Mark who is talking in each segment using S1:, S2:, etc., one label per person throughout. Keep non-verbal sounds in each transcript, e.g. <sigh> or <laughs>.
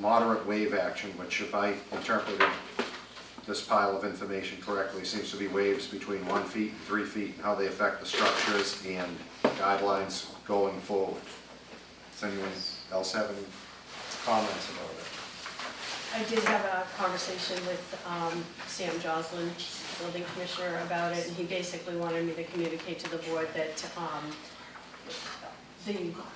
S1: moderate wave action, which if I interpreted this pile of information correctly, seems to be waves between one feet and three feet, and how they affect the structures and guidelines going forward. Does anyone else have any comments about it?
S2: I did have a conversation with um, Sam Joslin, building commissioner, about it, and he basically wanted me to communicate to the board that um, the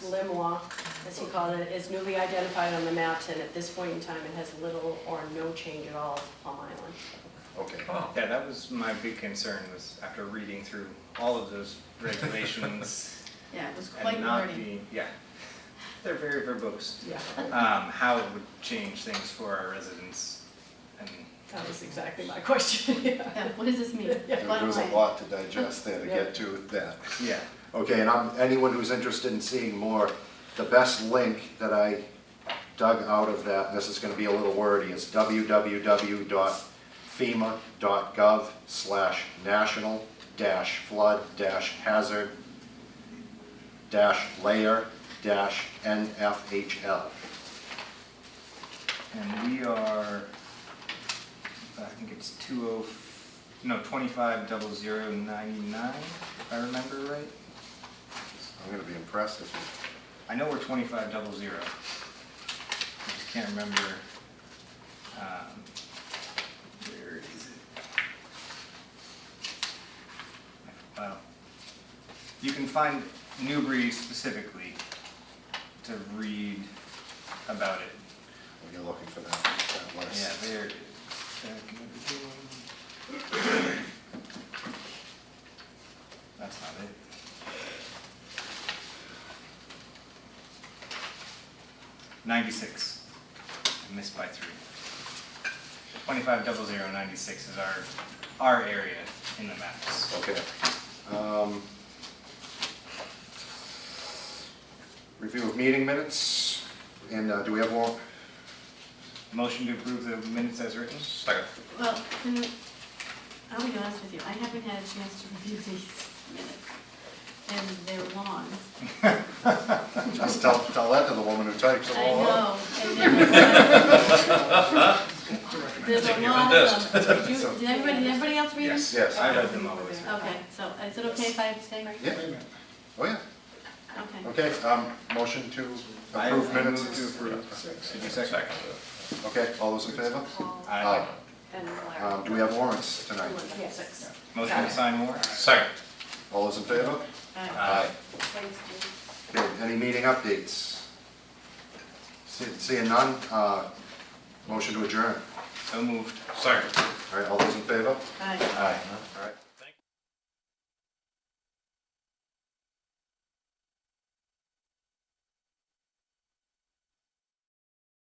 S2: limois, as he called it, is newly identified on the maps, and at this point in time, it has little or no change at all to Plum Island.
S1: Okay,
S3: Yeah, that was my big concern was after reading through all of those regulations
S4: Yeah, it was quite
S3: and not
S4: learning.
S3: being, yeah. They're very verbose.
S2: Yeah,
S3: Um, how it would change things for our residents and
S2: that was exactly my <laughs> question, yeah.
S4: Yeah, what does this mean?
S1: <laughs> there
S4: Bottom
S1: was a
S4: line.
S1: lot to digest there to get to that.
S3: yeah.
S1: Okay, and I'm, anyone who's interested in seeing more, the best link that I dug out of that, this is gonna be a little wordy, is www.fema.gov slash national dash flood dash hazard dash layer dash NFHL.
S3: And we are, I think it's two oh, no, twenty-five double zero ninety-nine, if I remember right.
S1: I'm gonna be impressed if you,
S3: I know we're twenty-five double zero. I just can't remember, um, where is it? Well, you can find Newbury specifically to read about it.
S1: when you're looking for that, that
S3: Yeah,
S1: list.
S3: there it is. Back in the beginning. That's not it. Ninety-six. I missed by three. Twenty-five double zero ninety-six is our, our area in the maps.
S1: Okay. Um, Review of meeting minutes, and uh, do we have one?
S3: Motion to approve the minutes as written?
S1: Second.
S4: Well, can we- I'll be honest with you, I haven't had a chance to review these minutes, and they're long.
S1: Just tell, tell that to the woman who types them
S4: I
S1: all up.
S4: know. and they're-
S3: <laughs>
S4: There's a lot of them. Did you- Did everybody, did everybody else read them?
S3: Yes.
S1: Yes.
S3: I read them always.
S4: Okay, so uh, is it okay if I abstain?
S1: Yeah. Oh, yeah,
S4: Okay.
S1: okay, um, motion to
S3: I-
S1: approve
S3: I
S1: minutes.
S3: move to approve. Did you second?
S1: Okay, all those in favor?
S3: Aye.
S2: And Larry.
S1: Um, do we have warrants tonight?
S2: Yes.
S3: Motion to sign warrants?
S5: Second.
S1: All those in favor?
S4: Aye.
S3: Aye.
S1: Okay, any meeting updates? See- Seeing none, uh, motion to adjourn.
S3: So moved.
S5: Second.
S1: All right, all those in favor?
S4: Aye.
S1: Aye. All right.